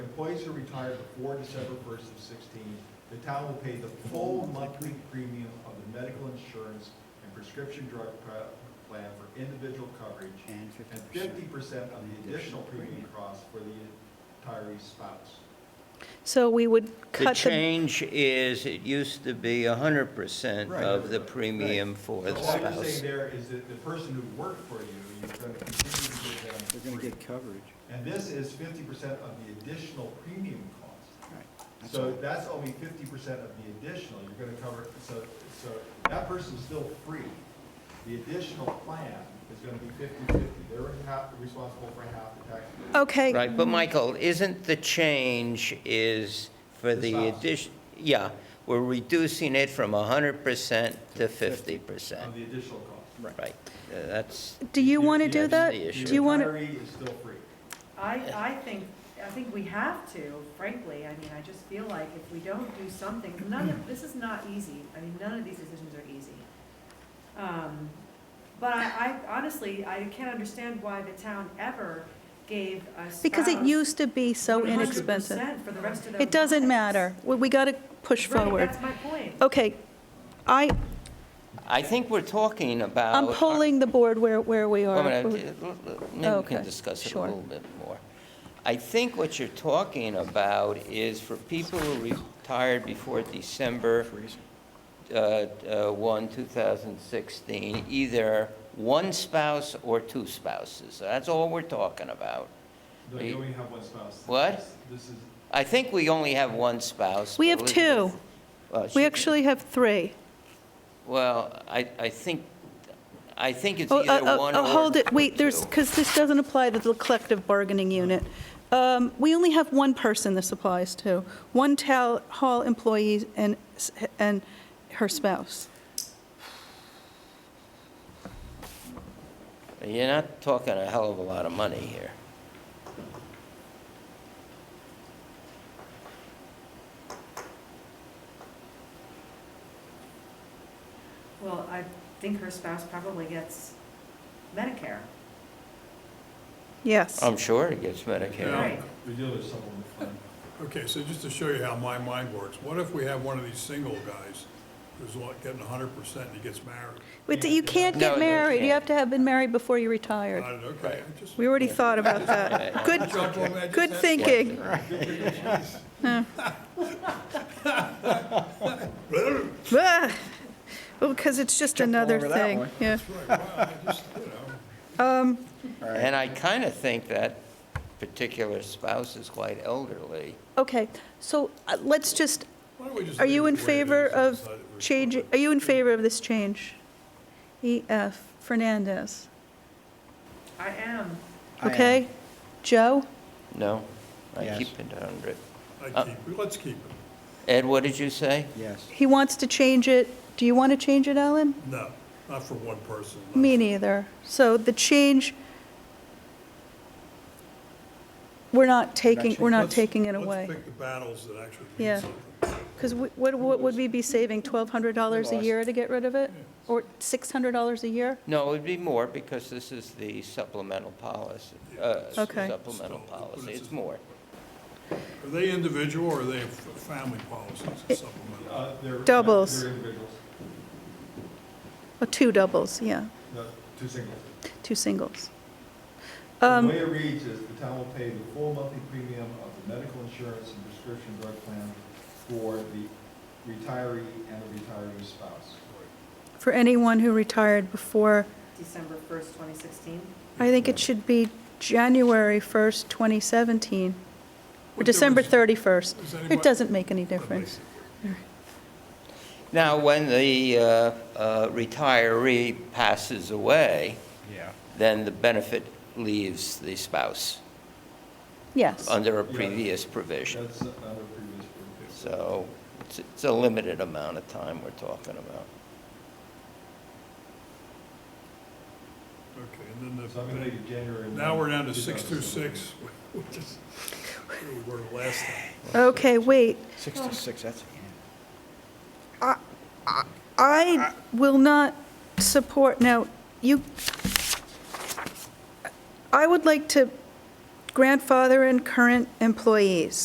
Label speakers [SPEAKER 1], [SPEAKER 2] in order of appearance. [SPEAKER 1] employees who retire before December first of sixteen, the town will pay the full monthly premium of the medical insurance and prescription drug pro- plan for individual coverage
[SPEAKER 2] and
[SPEAKER 1] and
[SPEAKER 2] fifty
[SPEAKER 1] fifty
[SPEAKER 2] percent.
[SPEAKER 1] percent of the additional premium cost for the retiree's spouse.
[SPEAKER 3] So we would
[SPEAKER 4] The
[SPEAKER 3] cut the,
[SPEAKER 4] change is, it used to be 100%
[SPEAKER 1] Right.
[SPEAKER 4] of the premium for
[SPEAKER 1] So
[SPEAKER 4] the
[SPEAKER 1] all you're
[SPEAKER 4] Oh, spouse.
[SPEAKER 1] saying there is that the person who worked for you, you're gonna continue to give them.
[SPEAKER 2] They're gonna
[SPEAKER 1] free.
[SPEAKER 2] get coverage.
[SPEAKER 1] And this is fifty percent of the additional premium cost.
[SPEAKER 2] Right. That's
[SPEAKER 1] So
[SPEAKER 2] all.
[SPEAKER 1] that's only fifty percent of the additional, you're gonna cover, so, so that person's still free. The additional plan is gonna be fifty-fifty, they're half, responsible for half the tax.
[SPEAKER 3] okay,
[SPEAKER 4] Right, but Michael, isn't the change is for
[SPEAKER 1] The
[SPEAKER 4] the
[SPEAKER 1] spouse.
[SPEAKER 4] addition, yeah, we're reducing it from 100% to
[SPEAKER 1] On
[SPEAKER 4] 50%.
[SPEAKER 1] the additional cost.
[SPEAKER 4] Right, Uh, that's,
[SPEAKER 3] do you want to do
[SPEAKER 4] Yes,
[SPEAKER 3] that?
[SPEAKER 4] the
[SPEAKER 3] Do
[SPEAKER 4] issue.
[SPEAKER 3] you want
[SPEAKER 1] The
[SPEAKER 3] to,
[SPEAKER 1] retiree is still free.
[SPEAKER 5] I, I think, I think we have to, frankly, I mean, I just feel like if we don't do something, none of, this is not easy, I mean, none of these decisions are easy. Um, But I, I honestly, I can't understand why the town ever gave a spouse.
[SPEAKER 3] because it used to be so inexpensive.
[SPEAKER 5] 100% for the rest of their
[SPEAKER 3] It doesn't
[SPEAKER 5] lives.
[SPEAKER 3] matter. We, we got to push
[SPEAKER 5] Right,
[SPEAKER 3] forward. Oh.
[SPEAKER 5] that's my point.
[SPEAKER 3] Okay, I,
[SPEAKER 4] I think we're talking about.
[SPEAKER 3] I'm polling the board where, where we
[SPEAKER 4] Oh, Wait a
[SPEAKER 3] are.
[SPEAKER 4] minute, uh, l- l- maybe we
[SPEAKER 3] Okay,
[SPEAKER 4] can discuss it a
[SPEAKER 3] sure.
[SPEAKER 4] little bit more. I think what you're talking about is for people who retired before December uh, uh, 1, 2016, either one spouse or two spouses. That's all we're talking about.
[SPEAKER 1] No,
[SPEAKER 4] Wait.
[SPEAKER 1] you only have one spouse.
[SPEAKER 4] What?
[SPEAKER 1] This is,
[SPEAKER 4] I think we only have one spouse.
[SPEAKER 3] We have two.
[SPEAKER 4] Elizabeth- well,
[SPEAKER 3] We
[SPEAKER 4] she-
[SPEAKER 3] actually have three.
[SPEAKER 4] Well, I, I think, I think it's
[SPEAKER 3] Oh, uh,
[SPEAKER 4] either
[SPEAKER 3] uh,
[SPEAKER 4] one
[SPEAKER 3] uh,
[SPEAKER 4] or.
[SPEAKER 3] Hold it, wait, there's,
[SPEAKER 4] two. Oh.
[SPEAKER 3] because this doesn't apply to the collective bargaining unit. Um, We only have one person this applies to, one town hall employee and, s- and her spouse.
[SPEAKER 4] You're not talking a hell of a lot of money here.
[SPEAKER 5] Well, I think her spouse probably gets Medicare,
[SPEAKER 3] Yes.
[SPEAKER 4] I'm sure it gets Medicare.
[SPEAKER 5] right?
[SPEAKER 1] we deal with someone with fun.
[SPEAKER 6] Okay, so just to show you how my mind works, what if we have one of these single guys who's like getting hundred percent and he gets married?
[SPEAKER 3] But you can't
[SPEAKER 4] No,
[SPEAKER 3] get
[SPEAKER 4] you
[SPEAKER 3] married, you
[SPEAKER 4] can't.
[SPEAKER 3] have to have been married before you retired.
[SPEAKER 6] I- Okay, I just.
[SPEAKER 3] We already thought about that.
[SPEAKER 4] Right.
[SPEAKER 3] Good,
[SPEAKER 6] Chuck, well, I just
[SPEAKER 3] good
[SPEAKER 6] had-
[SPEAKER 3] thinking. Well, because it's just another
[SPEAKER 2] over that
[SPEAKER 3] thing,
[SPEAKER 2] one.
[SPEAKER 3] yeah.
[SPEAKER 6] That's right, wow, I just, you know.
[SPEAKER 4] And I kind of think that particular spouse is quite elderly.
[SPEAKER 3] Okay, so uh, let's just,
[SPEAKER 6] Why don't we just
[SPEAKER 3] are
[SPEAKER 6] leave
[SPEAKER 3] you
[SPEAKER 6] it
[SPEAKER 3] in
[SPEAKER 6] the way it
[SPEAKER 3] favor
[SPEAKER 6] is and
[SPEAKER 3] of
[SPEAKER 6] decide that we're-
[SPEAKER 3] changing, are you in favor of this change? E.F. Fernandez,
[SPEAKER 5] I am,
[SPEAKER 2] I am.
[SPEAKER 3] okay? Joe?
[SPEAKER 4] No? I
[SPEAKER 2] Yes.
[SPEAKER 4] keep it 100.
[SPEAKER 6] I keep, it. let's keep it.
[SPEAKER 4] Ed, what did you say?
[SPEAKER 2] Yes.
[SPEAKER 3] He wants to change it. Do you want to change it, Alan?
[SPEAKER 6] No, not for one person. not
[SPEAKER 3] Me
[SPEAKER 6] for-
[SPEAKER 3] neither. So the change, we're not taking, we're not
[SPEAKER 6] Let's-
[SPEAKER 3] taking it away.
[SPEAKER 6] Let's pick the battles that actually
[SPEAKER 3] Yeah.
[SPEAKER 6] mean something.
[SPEAKER 3] Because what, what would we be saving, $1,200 a year to get rid of it? Or $600 a year?
[SPEAKER 4] No, it would be more because this is the supplemental policy, uh,
[SPEAKER 3] Okay.
[SPEAKER 4] supplemental policy. It's more.
[SPEAKER 6] Are they individual or are they f- family policies and supplemental?
[SPEAKER 1] Uh, they're-
[SPEAKER 3] Doubles.
[SPEAKER 1] They're individuals,
[SPEAKER 3] Or two doubles, yeah,
[SPEAKER 1] no, two singles.
[SPEAKER 3] two singles.
[SPEAKER 1] The
[SPEAKER 3] Um,
[SPEAKER 1] way it reads is the town will pay the full monthly premium of the medical insurance and prescription drug plan for the retiree and the retiree's spouse.
[SPEAKER 3] For anyone who retired before,
[SPEAKER 5] December first, twenty sixteen.
[SPEAKER 3] I think it should be January 1st, 2017, or
[SPEAKER 6] What
[SPEAKER 3] December
[SPEAKER 6] difference-
[SPEAKER 3] 31st.
[SPEAKER 6] Does anybody-
[SPEAKER 3] It doesn't make any difference.
[SPEAKER 4] Now, when the uh, uh, retiree passes away,
[SPEAKER 2] Yeah.
[SPEAKER 4] then the benefit leaves the spouse
[SPEAKER 3] Yes,
[SPEAKER 4] under a
[SPEAKER 1] Yeah.
[SPEAKER 4] previous provision.
[SPEAKER 1] That's another previous purpose.
[SPEAKER 4] So it's- it's a limited amount of time we're talking about.
[SPEAKER 6] Okay, and then the.
[SPEAKER 1] So I'm gonna make it January.
[SPEAKER 6] Now we're down to
[SPEAKER 1] 1,
[SPEAKER 6] six through
[SPEAKER 1] 2017.
[SPEAKER 6] six, which is where we were last time.
[SPEAKER 3] okay, wait.
[SPEAKER 1] Oh.
[SPEAKER 2] Sixty-six, that's,
[SPEAKER 3] I will not support, now, you, I would like to grandfather in current employees.